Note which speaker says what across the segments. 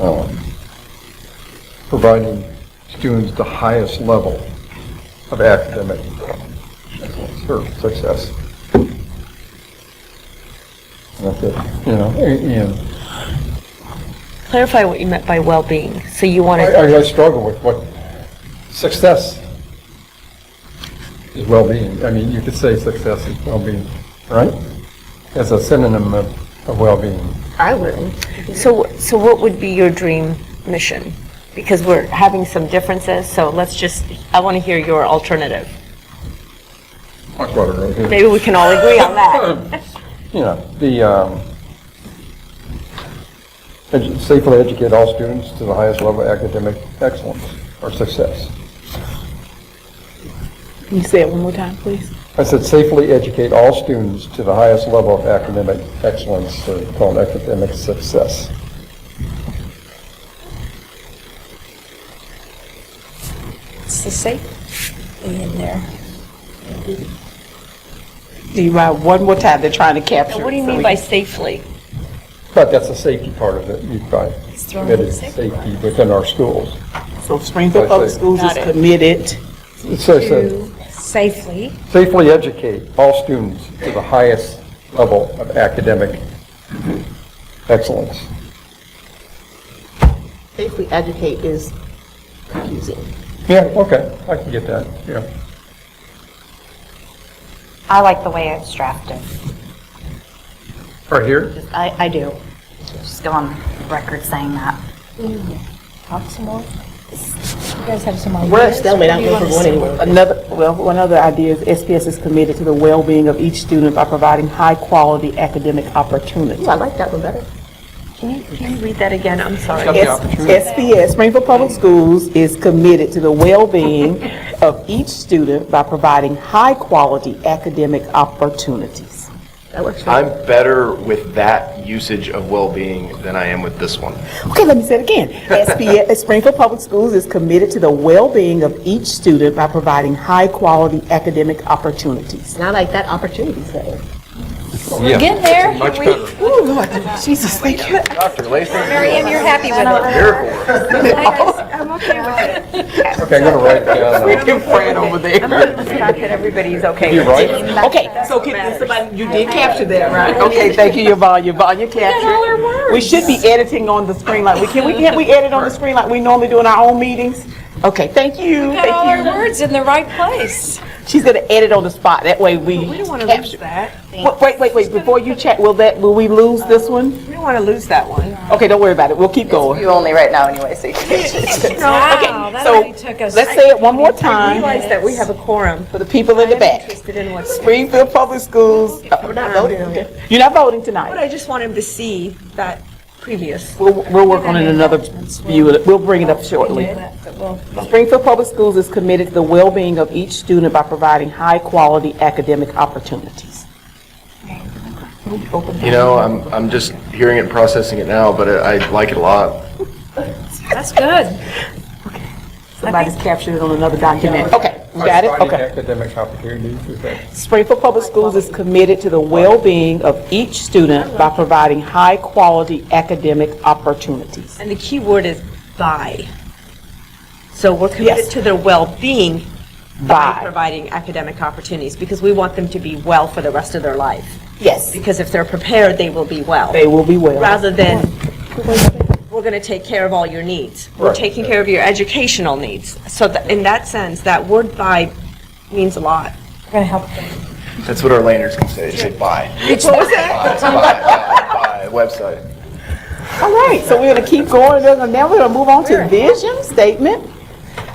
Speaker 1: um, providing students the highest level of academic excellence or success. And that's it, You know, and- and
Speaker 2: Clarify what you meant by well-being. So you wanted,
Speaker 1: I, I- I struggle with what success is well-being. I mean, you could say success is well-being, right? As a synonym of, of well-being.
Speaker 2: I would. So, so what would be your dream mission? Because we're having some differences, so let's just, I want to hear your alternative.
Speaker 1: Talk about it right here.
Speaker 2: Maybe we can all agree on that.
Speaker 1: You know, the, um, edu- safely educate all students to the highest level of academic excellence or success.
Speaker 3: Can you say it one more time, please?
Speaker 1: I said safely educate all students to the highest level of academic excellence, or called academic success.
Speaker 4: It's the safe thing in there.
Speaker 3: Do you mind one more time? They're trying to capture.
Speaker 2: What do
Speaker 3: it,
Speaker 2: you
Speaker 3: so
Speaker 2: mean
Speaker 3: we-
Speaker 2: by safely?
Speaker 1: But that's the safety part of it. You've got
Speaker 4: It's thrown in
Speaker 1: committed
Speaker 4: safety.
Speaker 1: safety within our schools.
Speaker 3: So Springfield Public Schools is
Speaker 2: Got it.
Speaker 3: committed.
Speaker 1: It says that
Speaker 4: To safely
Speaker 1: safely educate all students to the highest level of academic excellence.
Speaker 5: Safely educate is confusing.
Speaker 1: Yeah, okay, I can get that, yeah.
Speaker 6: I like the way it's drafted.
Speaker 1: Right here?
Speaker 6: Just- I, I do. Just go on record saying that.
Speaker 4: talk some more. You guys have some ideas?
Speaker 3: We're at stalemate, I
Speaker 4: Do
Speaker 3: don't think we're
Speaker 4: you want to
Speaker 3: going
Speaker 4: say-
Speaker 3: anywhere. Another, well, one other idea is SPS is committed to the well-being of each student by providing high-quality academic opportunities.
Speaker 5: Ooh, I like that one better.
Speaker 2: Can you, can you read that again? I'm sorry.
Speaker 1: Got the opportunity.
Speaker 3: SPS, Springfield Public Schools, is committed to the well-being of each student by providing high-quality academic opportunities.
Speaker 5: That works for me.
Speaker 7: I'm better with that usage of well-being than I am with this one.
Speaker 3: Okay, let me say it again. SPS, Springfield Public Schools is committed to the well-being of each student by providing high-quality academic opportunities.
Speaker 5: And I like that opportunities better.
Speaker 1: Yeah.
Speaker 4: Get there.
Speaker 1: Much better.
Speaker 3: Ooh, Lord, Jesus, thank you.
Speaker 7: Dr. Latham,
Speaker 6: Miriam, you're happy with it.
Speaker 7: miracle worker.
Speaker 1: Okay, I'm gonna write it down.
Speaker 3: Freaking Fran over there.
Speaker 2: Everybody's okay.
Speaker 1: You're right.
Speaker 3: Okay, so can, did somebody, you did capture that, right? Okay, thank you, Yvonne, Yvonne, you captured. We should be editing on the screen like, we can, we, can't we edit on the screen like we normally do in our own meetings? Okay, thank you,
Speaker 4: Got all our
Speaker 3: thank you.
Speaker 4: words in the right place.
Speaker 3: She's gonna edit on the spot, that way we capture. We don't wanna lose that. Wait, wait, wait, before you check, will that, will we lose this one?
Speaker 2: We don't want to lose that one.
Speaker 3: Okay, don't worry about it. We'll keep going.
Speaker 5: You only right now anyway, so you can.
Speaker 4: Wow, that
Speaker 3: So
Speaker 4: already took us.
Speaker 3: let's say it one more time
Speaker 2: Realize that we have a quorum.
Speaker 3: for the people in the back.
Speaker 2: Interested in what's.
Speaker 3: Springfield Public Schools. Oh, We're not voting. okay. You're not
Speaker 2: Um,
Speaker 3: voting
Speaker 2: But
Speaker 3: tonight.
Speaker 2: I just want him to see that previous.
Speaker 3: We'll, we'll work on it in another view. of it. We'll bring it up shortly. Springfield Public Schools is committed to the well-being of each student by providing high-quality academic opportunities.
Speaker 7: You know, I'm, I'm just hearing it and processing it now, but I I like it a lot.
Speaker 4: That's good.
Speaker 3: Somebody's captured it on another document. Okay, we got it?
Speaker 1: Providing
Speaker 3: Okay.
Speaker 1: Academic opportunities, is that?
Speaker 3: Springfield Public Schools is committed to the well-being of each student by providing high-quality academic opportunities.
Speaker 2: And the key word is by. So we're
Speaker 3: Yes.
Speaker 2: committed to their well-being by
Speaker 3: By,
Speaker 2: providing academic opportunities, because we want them to be well for the rest of their life.
Speaker 3: yes,
Speaker 2: Because if they're prepared, they will be well.
Speaker 3: they will be well.
Speaker 2: Rather than, we're going to take care of all your needs. We're
Speaker 1: Right.
Speaker 2: taking care of your educational needs. So tha- in that sense, that word by means a lot.
Speaker 4: We're gonna help
Speaker 7: That's what our Landers can say, say bye. Bye, bye, bye, bye, website.
Speaker 3: All right, so we're going to keep going, We're gonna- now we're going to move on to vision statement.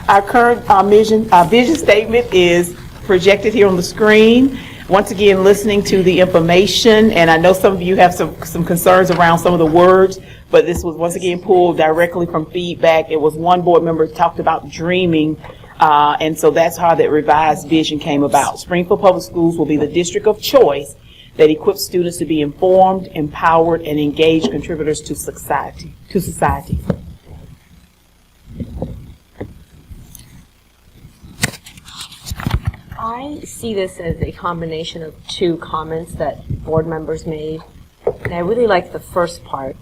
Speaker 3: Our current, uh vision, our vision statement is projected here on the screen. Once again, listening to the information, and I know some of you have some, some concerns around some of the words, but this was once again pulled directly from feedback. It was one board member talked about dreaming, uh, and so that's how that revised vision came about. Springfield Public Schools will be the district of choice that equips students to be informed, empowered, and engaged contributors to society, to society.
Speaker 2: I see this as a combination of two comments that board members made. And I really like the first part,